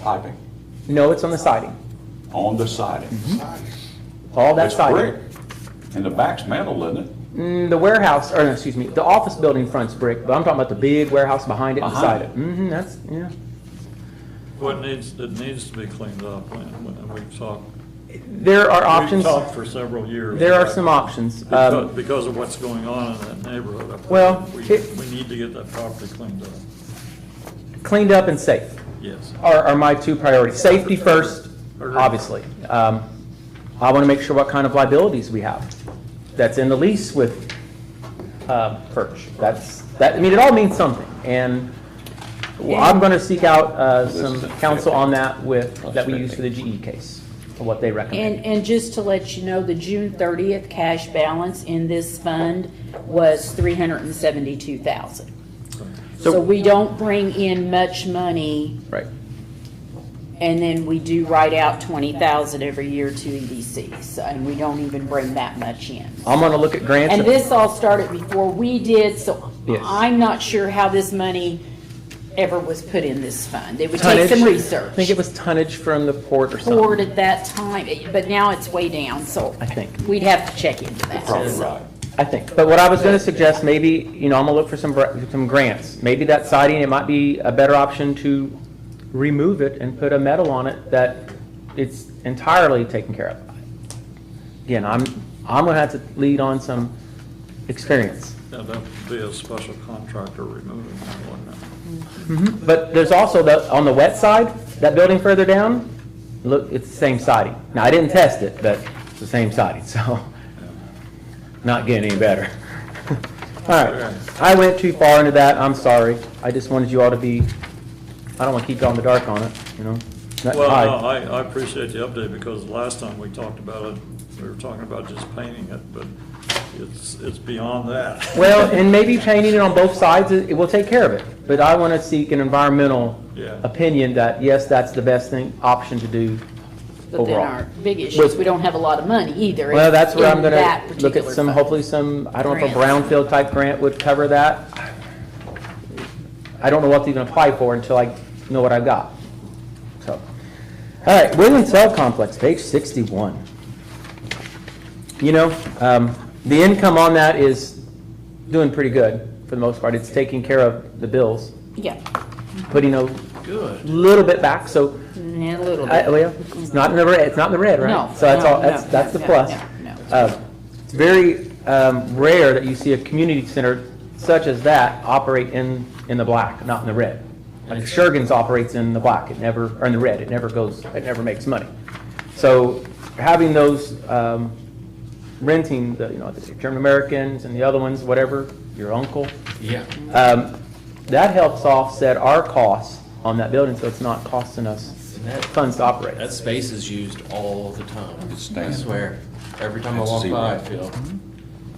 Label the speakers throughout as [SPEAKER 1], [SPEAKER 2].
[SPEAKER 1] piping
[SPEAKER 2] No, it's on the siding.
[SPEAKER 1] on the siding.
[SPEAKER 2] All that
[SPEAKER 1] It's brick,
[SPEAKER 2] siding.
[SPEAKER 1] and the back's metal, isn't it?
[SPEAKER 2] Mm, The warehouse, or no, excuse me, the office building front's brick, but I'm talking about the big warehouse behind it, and
[SPEAKER 1] Behind
[SPEAKER 2] beside it.
[SPEAKER 1] it.
[SPEAKER 2] hmm that's, yeah.
[SPEAKER 3] What needs, it needs to be cleaned up, and we- and we've talked,
[SPEAKER 2] There are
[SPEAKER 3] we've
[SPEAKER 2] options.
[SPEAKER 3] talked for several years.
[SPEAKER 2] There are some options.
[SPEAKER 3] Because
[SPEAKER 2] Um,
[SPEAKER 3] because of what's going on in that neighborhood. up there.
[SPEAKER 2] Well,
[SPEAKER 3] We,
[SPEAKER 2] it-
[SPEAKER 3] we need to get that property cleaned up,
[SPEAKER 2] cleaned up and safe
[SPEAKER 3] yes.
[SPEAKER 2] are, are my two priorities. Safety first, obviously. Um, I want to make sure what kind of liabilities we have. That's in the lease with, uh, Perch. That's, that, I mean, it all means something. And well, I'm going to seek out, uh, some counsel on that with, that we use for the GE case, and what they recommend.
[SPEAKER 4] And, and just to let you know, the June thirtieth cash balance in this fund was three hundred and seventy-two thousand.
[SPEAKER 2] So-
[SPEAKER 4] So we don't bring in much money,
[SPEAKER 2] Right.
[SPEAKER 4] and then we do write out twenty thousand every year to E EDCs, and we don't even bring that much in.
[SPEAKER 2] I'm going to look at grants.
[SPEAKER 4] And this all started before we did, so
[SPEAKER 2] Yes.
[SPEAKER 4] I'm not sure how this money ever was put in this fund. It would take some
[SPEAKER 2] Tonnage.
[SPEAKER 4] research.
[SPEAKER 2] I think it was tonnage from the port or something.
[SPEAKER 4] Poured at that time, but now it's way down, so.
[SPEAKER 2] I think.
[SPEAKER 4] We'd have to check into that.
[SPEAKER 1] Probably right.
[SPEAKER 2] I think. But what I was going to suggest, maybe, you know, I'm going to look for some, br- some grants. Maybe that siding, it might be a better option to remove it and put a metal on it that it's entirely taken care of. Again, I'm, I'm going to have to lead on some experience.
[SPEAKER 3] Now, that would be a special contractor removing that one.
[SPEAKER 2] But there's also the, on the wet side, that building further down, look, it's the same siding. Now, I didn't test it, but it's the same siding, so not getting any better. All right, I went too far into that, I'm sorry. I just wanted you all to be, I don't want to keep you all in the dark on it, you know? Not-
[SPEAKER 3] Well,
[SPEAKER 2] I-
[SPEAKER 3] no, I, I appreciate the update, because last time we talked about it, we were talking about just painting it, but it's, it's beyond that.
[SPEAKER 2] Well, and maybe painting it on both sides, it it will take care of it. But I want to seek an environmental
[SPEAKER 3] Yeah.
[SPEAKER 2] opinion that, yes, that's the best thing, option to do
[SPEAKER 4] But then
[SPEAKER 2] overall.
[SPEAKER 4] our big issue is we don't have a lot of money either.
[SPEAKER 2] Well, that's where I'm
[SPEAKER 4] in
[SPEAKER 2] gonna
[SPEAKER 4] that
[SPEAKER 2] look at
[SPEAKER 4] particular
[SPEAKER 2] some,
[SPEAKER 4] fund.
[SPEAKER 2] hopefully some, I don't know if a
[SPEAKER 4] Grants.
[SPEAKER 2] brownfield-type grant would cover that. I don't know what to even apply for until I know what I've got, so. All right, William Cell Complex, page sixty-one. You know, um, the income on that is doing pretty good, for the most part. It's taking care of the bills,
[SPEAKER 4] Yeah,
[SPEAKER 2] putting a little bit back, so,
[SPEAKER 4] Mm, a little
[SPEAKER 2] I-
[SPEAKER 4] bit.
[SPEAKER 2] well, it's not in the red, it's not in the red, right?
[SPEAKER 4] No,
[SPEAKER 2] So that's
[SPEAKER 4] no,
[SPEAKER 2] all, that's,
[SPEAKER 4] no,
[SPEAKER 2] that's the
[SPEAKER 4] no,
[SPEAKER 2] plus.
[SPEAKER 4] no, no.
[SPEAKER 2] Uh, It's very um, rare that you see a community center such as that operate in, in the black, not in the red. Like Shergans operates in the black, it never, or in the red, it never goes, it never makes money. So having those, um, renting, the, you know, the German Americans and the other ones, whatever, your uncle. Yeah. That helps offset our costs on that building, so it's not costing us
[SPEAKER 5] And that-
[SPEAKER 2] funds to operate.
[SPEAKER 5] That space is used all the time. I
[SPEAKER 1] standing.
[SPEAKER 5] swear, every time I
[SPEAKER 1] It's
[SPEAKER 5] walk
[SPEAKER 1] zero.
[SPEAKER 5] by, I feel.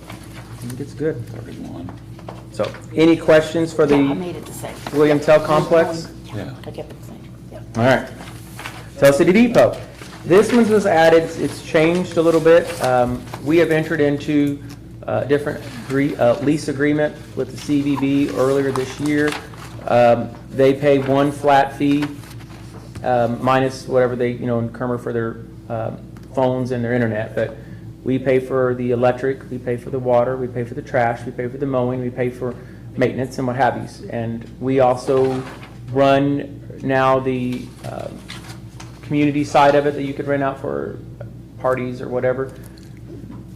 [SPEAKER 2] I think it's good.
[SPEAKER 1] Thirty-one,
[SPEAKER 2] So, any questions for
[SPEAKER 4] Yeah, I
[SPEAKER 2] the
[SPEAKER 4] made it the same.
[SPEAKER 2] William Tell Complex?
[SPEAKER 1] yeah.
[SPEAKER 4] I kept it the same. Yeah.
[SPEAKER 2] All right. Tell City Depot. This one was added, it's changed a little bit. Um, We have entered into a different agree- uh, lease agreement with the CVB earlier this year. Um, They pay one flat fee um, minus whatever they, you know, incur for their um, phones and their internet. But we pay for the electric, we pay for the water, we pay for the trash, we pay for the mowing, we pay for maintenance and what have yous. And we also run now the um, community side of it that you could rent out for parties or whatever.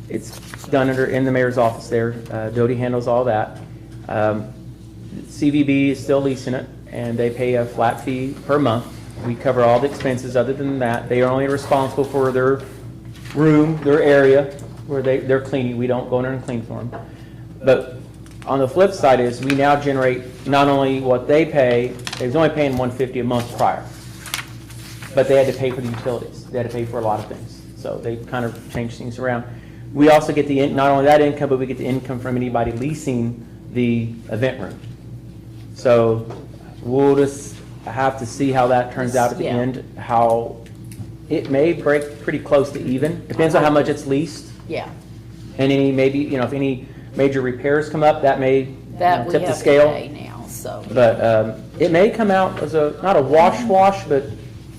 [SPEAKER 2] It's done under, in the mayor's office there. Uh, Doty handles all that. Um, CVB is still leasing it, and they pay a flat fee per month. We cover all the expenses other than that. They are only responsible for their room, their area, where they, they're cleaning. We don't go in there and clean for them. But on the flip side is, we now generate not only what they pay, they was only paying one fifty a month prior. But they had to pay for the utilities. They had to pay for a lot of things. So they kind of changed things around. We also get the, in- not only that income, but we get the income from anybody leasing the event room. So we'll just have to see how that turns out at the
[SPEAKER 4] Yeah.
[SPEAKER 2] end, how it may break pretty close to even. Depends on how much it's leased
[SPEAKER 4] Yeah,
[SPEAKER 2] and any, maybe, you know, if any major repairs come up, that may you know,
[SPEAKER 4] that we
[SPEAKER 2] tip the
[SPEAKER 4] have to
[SPEAKER 2] scale.
[SPEAKER 4] pay now, so.
[SPEAKER 2] But um, it may come out as a, not a wash wash, but